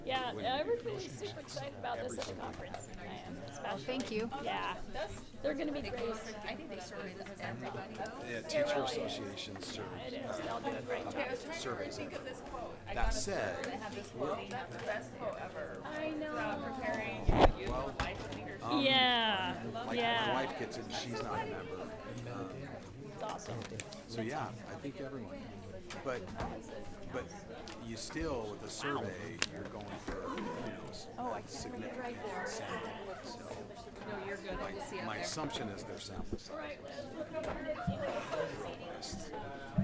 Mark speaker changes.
Speaker 1: Everybody's super excited about this at the conference. I am, especially.
Speaker 2: Thank you.
Speaker 1: Yeah, they're gonna be great.
Speaker 3: I think they surveyed this as everybody.
Speaker 4: Yeah, teacher associations serve.
Speaker 1: It is, they'll do a great job.
Speaker 4: surveys.
Speaker 3: of this quote. I
Speaker 4: That said,
Speaker 3: have this quote. That's the best quote ever.
Speaker 1: I know.
Speaker 3: Preparing youth for life and leadership.
Speaker 1: Yeah,
Speaker 4: Um, like my
Speaker 1: yeah,
Speaker 4: wife gets it, and she's not a member. Um,
Speaker 1: it's awesome.
Speaker 4: so yeah, I think everyone. But but you still with the survey, you're going for you know s-
Speaker 3: Oh,
Speaker 4: significant sample. So
Speaker 3: No, you're good. I just see out
Speaker 4: my
Speaker 3: there.
Speaker 4: assumption is their sample size.